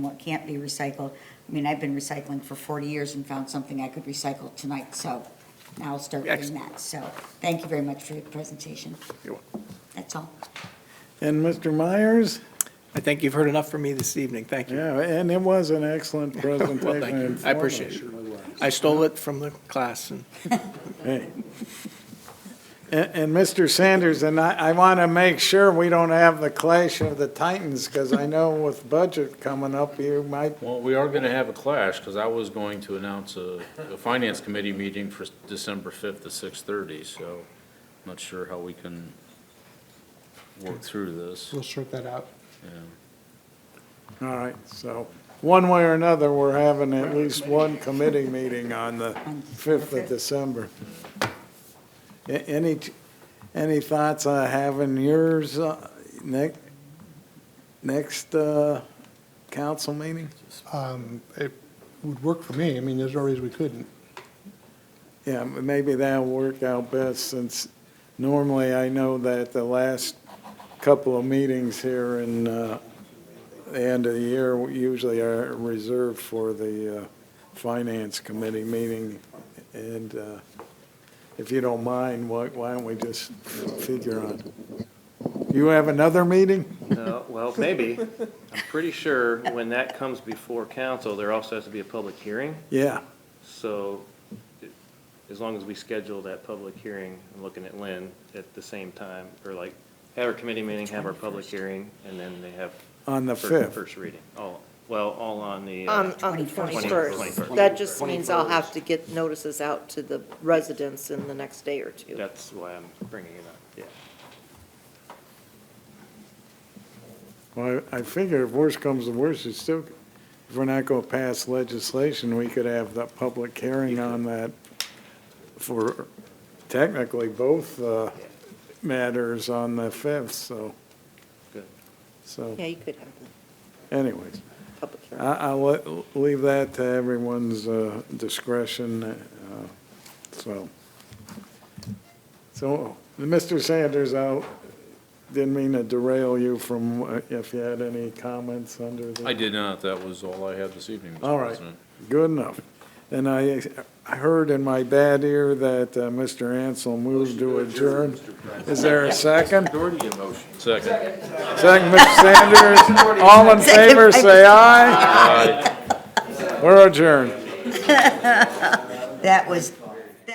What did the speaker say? what can't be recycled. I mean, I've been recycling for 40 years and found something I could recycle tonight, so now I'll start doing Excellent. that. So thank you very much for your presentation. You're That's all. And Mr. Myers, I think you've heard enough from me this evening. Thank you. yeah, and it was an excellent presentation. Well, thank you. I appreciate it. I stole it from the class and Hey. And, and Mr. Sanders, and I, I want to make sure we don't have the clash of the titans, because I know with budget coming up, you might, Well, we are going to have a clash, because I was going to announce a, a finance committee meeting for December 5th at 6:30, so I'm not sure how we can work through this. We'll sort that out. all right, so, one way or another, we're having at least one committee meeting on the 5th of December. A- Any, t- any thoughts on having yours uh, next, next uh, council meeting? Um, It would work for me. I mean, there's no reason we couldn't. Yeah, m- maybe that'll work out best since normally I know that the last couple of meetings here in uh, the end of the year usually are reserved for the uh, Finance Committee meeting. And uh, if you don't mind, why why don't we just figure on? You have another meeting? No, well, maybe. I'm pretty sure when that comes before council, there also has to be a public hearing. Yeah, So it- as long as we schedule that public hearing, I'm looking at Lynn, at the same time, or like, have our committee meeting, have our public hearing, and then they have. on the fir- 5th. First reading. All, well, all on the. uh, On, on the 21st. 21st. um, That just means I'll have to get notices out to the residents in the next day or two. That's why I'm bringing it up, yeah. Well, I I figure if worse comes to worse, it's still, if we're not going to pass legislation, we could have the public hearing on that for technically both uh, matters on the 5th, so. Good. So Yeah, you could have the anyways, public I- hearing. I'll let- leave that to everyone's uh, discretion, uh, so. So, Mr. Sanders, I didn't mean to derail you from, uh, if you had any comments under the. I did not, that was all I had this evening, All Mr. right. President. Good enough. And I, I heard in my bad ear that uh, Mr. Ansel moved to adjourn. Is there a second? Second. Second, Mr. Sanders. All in favor, say aye. We're adjourned. That was